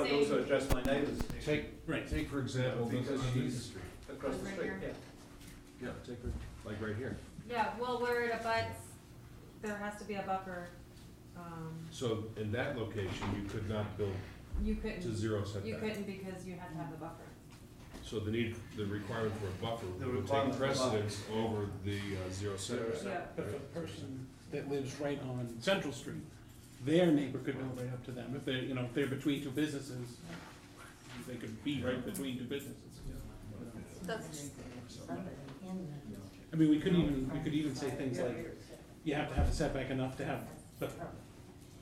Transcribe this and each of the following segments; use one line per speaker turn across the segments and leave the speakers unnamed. would also address my neighbours
Take,
Right.
take for example, this
Because
on Eaton
she's-
Street.
across the
Right
street,
here.
yeah.
Yeah, take for, like right here.
Yeah, well, where it abuts, there has to be a buffer, um,
So in that location, you could not build
you
to
couldn't,
zero
you
setback.
couldn't because you had to have the buffer.
So the need, the requirement for a buffer
The
would
requirement
take
for a buffer.
precedence over the uh, zero setback.
Yeah.
But if a person that lives right on Central Street, their neighbor could build right up to them, if they're, you know, if they're between two businesses, they could be right between two businesses.
That's.
I mean, we could even, we could even say things like, you have to have a setback enough to have the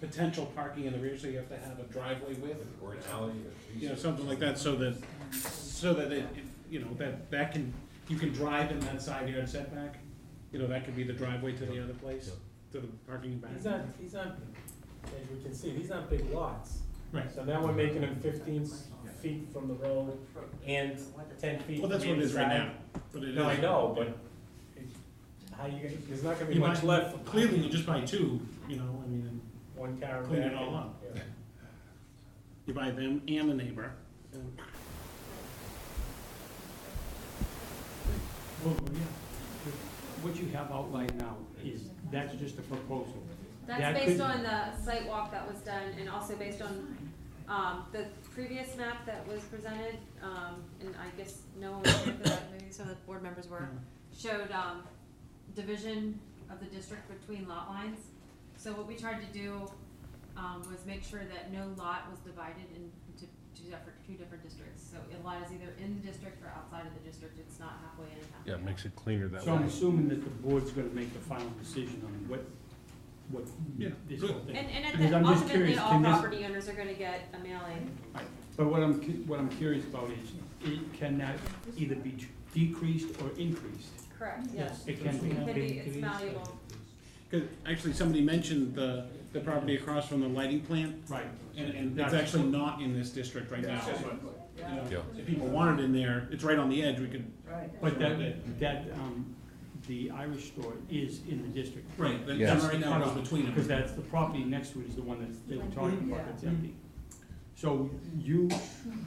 potential parking in the rear, so you have to have a driveway width,
Or an alley.
you know, something like that, so that, so that it, it- you know, that, that can, you can drive in that side yard setback, you know, that could be the driveway to the other place, to the parking back.
He's not, he's not, as you can see, these aren't big lots.
Right.
So now we're making them fifteen feet from the road and ten feet
Well, that's
from
what it is right
inside.
now, but it is.
No, I know, but it- how you, gonna- there's not gonna be
You
much
might-
left. for
Clearly, you just buy two, you know, I mean, and
One car.
clean it
back.
all up.
Yeah.
you buy them and the neighbor. and- Well, yeah.
What you have outlined now is, that's just a proposal. That
That's based
could-
on the site walk that was done and also based on, um, the previous map that was presented, um, and I guess no one was here for that, maybe some of the board members were, showed, um, division of the district between lot lines. So what we tried to do, um, was make sure that no lot was divided in- into two different, two different districts. So a lot is either in the district or outside of the district, it's not halfway in and halfway
Yeah,
out.
it makes it cleaner that
So I'm
way.
assuming that the board's gonna make the final decision on what, what
Yeah,
this
good.
whole thing.
And, and at
Because
the,
I'm just
ultimately,
curious,
all
can this-
property owners are gonna get a mailing.
But what I'm, cu- what I'm curious about is, it cannot either be t- decreased or increased.
Correct, yes.
It can
It could
be.
be, it's valuable.
Cause actually, somebody mentioned the, the property across from the lighting plant,
Right.
and, and it's
That's-
actually not in this district right now. You know, If people wanted in there, it's right on the edge, we could.
But that, that, um, the Irish store is in the district.
Right, that,
Yeah.
that right now goes between them.
Because that's, the property next to it is the one that they were talking about, that's empty. So you,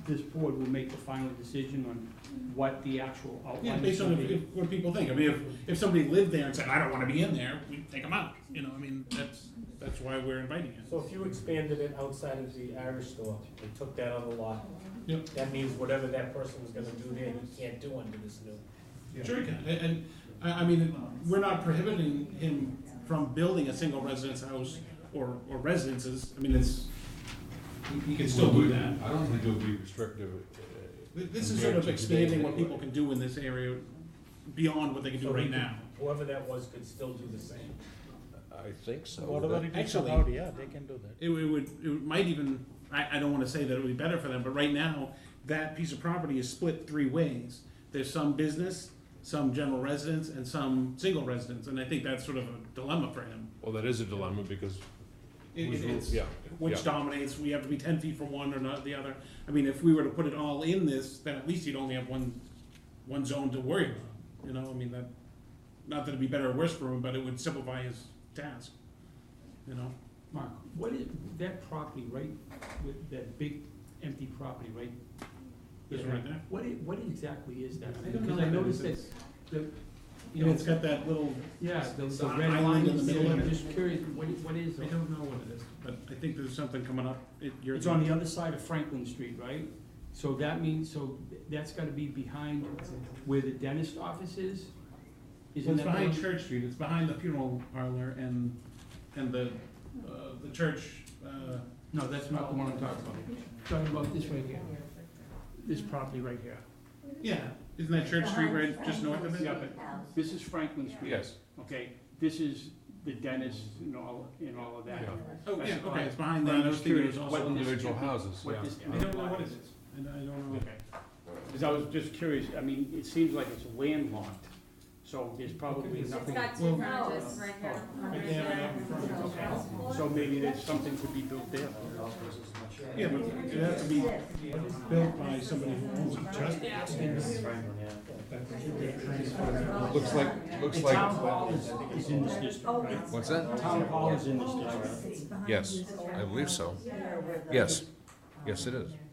this board will make the final decision on what the actual
Yeah,
outline is
based on
gonna
if-
be.
if- what people think. I mean, if, if somebody lived there and said, I don't wanna be in there, we'd take them out, you know, I mean, that's, that's why we're inviting it.
So if you expanded it outside of the Irish store and took that other lot.
Yep.
That means whatever that person was gonna do there, you can't do under this new.
Sure he can, and, and, I, I mean, we're not prohibiting him from building a single residence house or, or residences, I mean, it's, he can still do that.
I don't think it would be restrictive. uh,
Th- This is sort of
compared to today
expanding what
anyway.
people can do in this area beyond what they can do
So he
right
could-
now.
Whoever that was could still do the same.
I think so.
do Actually-
yeah, they can do that.
It would, it would- it would- might even, I, I don't wanna say that it would be better for them, but right now, that piece of property is split three ways. There's some business, some general residence, and some single residence, and I think that's sort of a dilemma for him.
Well, that is a dilemma because,
It-
who's
it-
who?
it's-
yeah.
Which
yeah.
dominates, we have to be ten feet from one or not the other. I mean, if we were to put it all in this, then at least you'd only have one, one zone to worry about, you know, I mean, that, not that it'd be better or worse for him, but it would simplify his task, you know?
Mark, what is, that property, right, with that big empty property, right?
This one right there?
What, i- what exactly is that?
I don't know
Because
what
I
that
noticed that,
is.
the, you
And
know,
it's got that little,
yeah, the,
it's
the
an
red
island in
line
the
is there,
middle of
I'm
it.
just curious, what, i- what is
I
it?
don't know what it is, but I think there's something coming up. It- you're-
It's on the other side of Franklin Street, right? So that means, so that's gotta be behind where the dentist office is?
Well,
Isn't
It's
that? the
behind
one-
Church Street, it's behind the funeral parlor and, and the, uh, the church, uh,
No, that's not the one I'm talking about. Talking about this right here, this property right here.
yeah, isn't that Church Street right just north of it?
Yeah, but This is Franklin Street.
Yes,
Okay, this is the dentist and all, and all of that.
Yeah.
Oh, yeah,
That's
okay,
fine.
it's behind
But
that,
I'm
I was
just
thinking it
curious
was
what
also.
Well,
this-
individual houses,
what
yeah.
this-
I don't know what it is, and I don't know.
Okay. Because I was just curious, I mean, it seems like it's landlocked, so there's probably
It's
nothing.
got two
Well-
frontages right here.
Right there, right up in front of us.
So maybe there's something could be built there.
Yeah, but it has to be built by somebody who owns it.
Looks like, looks
The
like.
town hall is, is in this district, right?
What's that?
Town hall is in this district.
Yes, I believe so. Yes, yes, it is.